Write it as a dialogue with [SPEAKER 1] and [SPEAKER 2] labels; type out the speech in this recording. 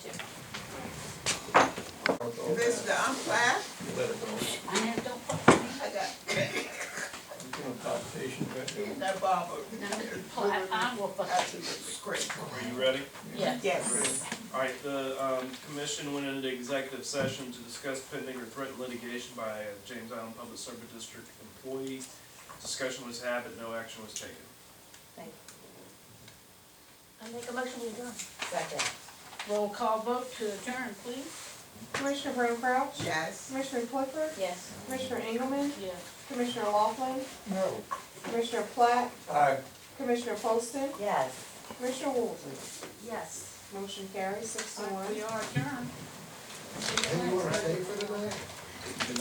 [SPEAKER 1] This, the unplanned,
[SPEAKER 2] I have don't put,
[SPEAKER 1] I got, that barber,
[SPEAKER 2] no, I, I will put
[SPEAKER 1] I should scrape.
[SPEAKER 3] Are you ready?
[SPEAKER 2] yeah.
[SPEAKER 1] Yes.
[SPEAKER 3] All right, the um, commission went into executive session to discuss pending or threatened litigation by a James Island Public Service District employee. Discussion was had, but no action was taken.
[SPEAKER 4] I make a motion, we adjourn.
[SPEAKER 1] Second.
[SPEAKER 2] Roll call vote to adjourn, please.
[SPEAKER 5] Commissioner Brown Crouch,
[SPEAKER 1] Yes.
[SPEAKER 5] Commissioner Clifford,
[SPEAKER 4] Yes.
[SPEAKER 5] Commissioner Engelmann,
[SPEAKER 2] Yes.
[SPEAKER 5] Commissioner Laughlin,
[SPEAKER 6] No.
[SPEAKER 5] Commissioner Platt,
[SPEAKER 6] Aye.
[SPEAKER 5] Commissioner Poston,
[SPEAKER 1] Yes.
[SPEAKER 5] Commissioner Woolsey.
[SPEAKER 4] Yes.
[SPEAKER 5] Motion carries six to
[SPEAKER 2] All
[SPEAKER 5] one.
[SPEAKER 2] right, We are adjourned.
[SPEAKER 6] Hey, you wanna stay for the night?